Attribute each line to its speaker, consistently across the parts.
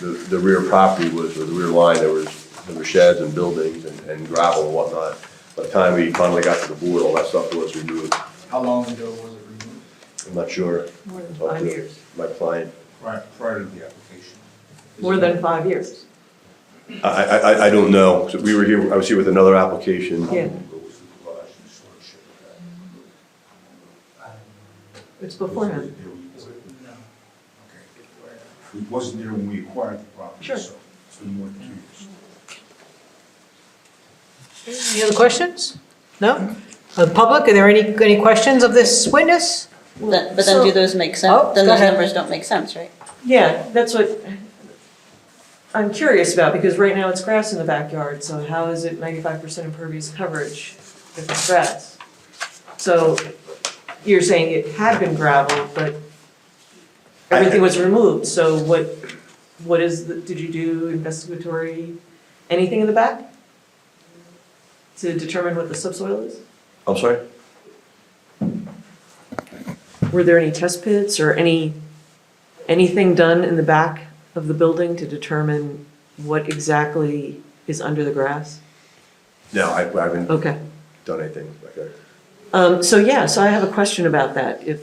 Speaker 1: the, the rear property was, or the rear line, there was, there were sheds and buildings and and gravel and whatnot. By the time we finally got to the board, all that stuff was removed.
Speaker 2: How long ago was it removed?
Speaker 1: I'm not sure.
Speaker 3: More than
Speaker 1: Talk
Speaker 3: five
Speaker 1: to
Speaker 3: years.
Speaker 1: My client.
Speaker 2: Prior, prior to the application.
Speaker 3: More than five years.
Speaker 1: I, I, I- I don't know. So We were here, I was here with another application.
Speaker 3: Yeah. It's beforehand.
Speaker 4: It wasn't there when we acquired the property, so
Speaker 3: Sure.
Speaker 4: it's been more than two years.
Speaker 5: Any other questions? No? Uh, Public, are there any, any questions of this witness?
Speaker 6: That- But then do
Speaker 3: So-
Speaker 6: those make
Speaker 5: Oh,
Speaker 6: sense? Then
Speaker 5: go
Speaker 6: those
Speaker 5: ahead.
Speaker 6: numbers don't make sense, right?
Speaker 3: Yeah, that's what I'm curious about, because right now it's grass in the backyard, so how is it ninety-five percent impervious coverage if it's grass? So you're saying it had been gravel, but everything was removed, so what, what is, the- did you do investigatory, anything in the back? To determine what the subsoil is?
Speaker 1: I'm sorry?
Speaker 3: Were there any test pits or any, anything done in the back of the building to determine what exactly is under the grass?
Speaker 1: No, I I haven't
Speaker 3: Okay.
Speaker 1: done anything like that.
Speaker 3: Um, so yeah, so I have a question about that. If,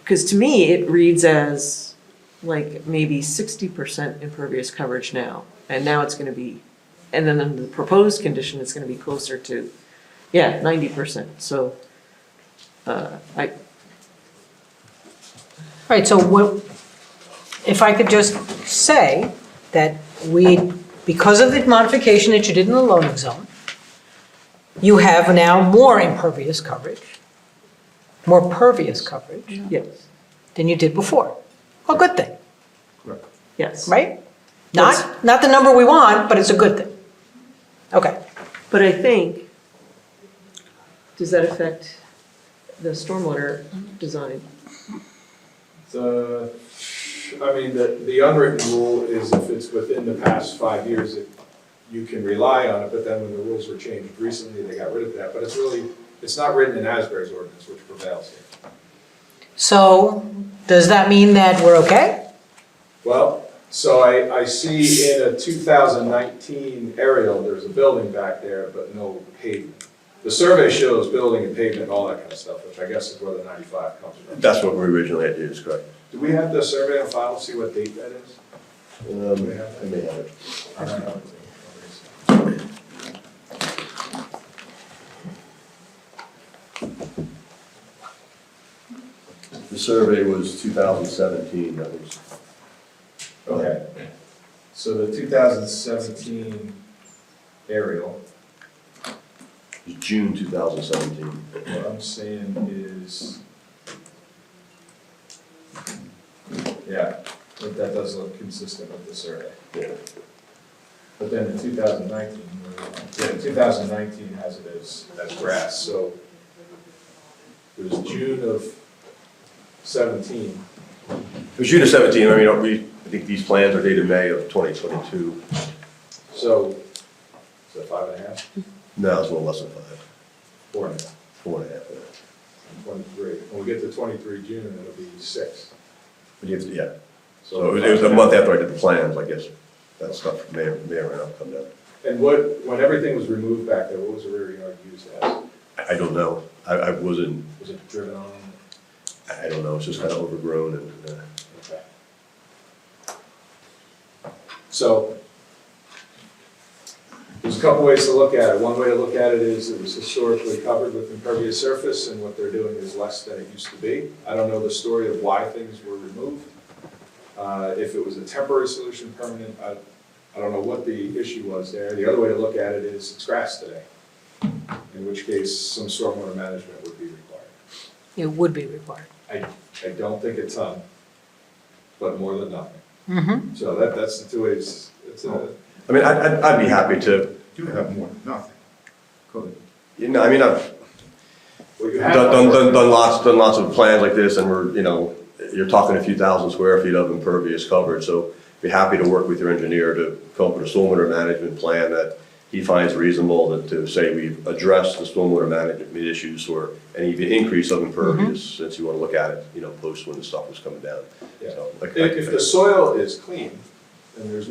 Speaker 3: because to me, it reads as like maybe sixty percent impervious coverage now, and now it's gonna be, and then under the proposed condition, it's gonna be closer to, yeah, ninety percent, so. Uh, I,
Speaker 5: All right, so what, if I could just say that we, because of the modification that you did in the loading zone, you have now more impervious coverage, more pervious coverage
Speaker 3: yes,
Speaker 5: than you did before. A good thing,
Speaker 4: Correct.
Speaker 3: yes.
Speaker 5: right?
Speaker 3: Yes.
Speaker 5: Not, not the number we want, but it's a good thing. Okay.
Speaker 3: But I think, does that affect the stormwater design?
Speaker 7: The, I mean, the, the unwritten rule is if it's within the past five years, it- you can rely on it, but then when the rules were changed recently, they got rid of that, but it's really, it's not written in Asbury's ordinance, which prevails here.
Speaker 5: So does that mean that we're okay?
Speaker 7: Well, so I, I see in a two thousand nineteen aerial, there's a building back there, but no pavement. The survey shows building and pavement and all that kind of stuff, which I guess is where the ninety-five comes from.
Speaker 1: That's what we originally had, is correct.
Speaker 7: Do we have the survey on file, see what date that is?
Speaker 1: Um, I may have it. The survey was 2017, that was.
Speaker 7: Okay, so the two thousand seventeen aerial,
Speaker 1: It was June 2017.
Speaker 7: what I'm saying is, yeah, but that does look consistent with the survey.
Speaker 1: Yeah.
Speaker 7: But then the two thousand nineteen, yeah, two thousand nineteen has it as, as grass, so it was June of seventeen.
Speaker 1: It was June of 17, I mean, uh, we, I think these plans are dated May of 2022.
Speaker 7: So, is that five and a half,
Speaker 1: No, it's a little less than five,
Speaker 7: four and a half,
Speaker 1: four and a half. yeah.
Speaker 7: twenty-three? When we get to twenty-three June, it'll be six.
Speaker 1: But you have to- Yeah, so it was- it was a month after I did the plans, I guess. That stuff may, may or may not come down.
Speaker 7: And what, when everything was removed back there, what was the rear yard used as?
Speaker 1: I, I don't know. I, I wasn't,
Speaker 7: Was it driven on?
Speaker 1: I I don't know, it's just kind of overgrown and, uh,
Speaker 7: Okay. So, there's a couple ways to look at it. One way to look at it is it was historically covered with impervious surface, and what they're doing is less than it used to be. I don't know the story of why things were removed. Uh, If it was a temporary solution, permanent, I, I don't know what the issue was there. The other way to look at it is it's grass today, in which case some stormwater management would be required.
Speaker 5: It would be required.
Speaker 7: I, I don't think a ton, but more than nothing.
Speaker 5: Mm-hmm.
Speaker 7: So that, that's the two ways, it's a,
Speaker 1: I mean, I'd, I'd- I'd be happy to,
Speaker 4: Do Oh, have more than nothing. Good.
Speaker 1: you know, I mean, I've
Speaker 7: well, you have.
Speaker 1: done, done- done, done lots, done lots of plans like this and we're, you know, you're talking a few thousand square feet of impervious coverage, so be happy to work with your engineer to come up with a stormwater management plan that he finds reasonable that to say we've addressed the stormwater management issues or any increase of impervious, since you want to look at it, you know, post when the stuff was coming down.
Speaker 7: Yeah.
Speaker 1: So, like-
Speaker 7: If, if the soil is clean, then there's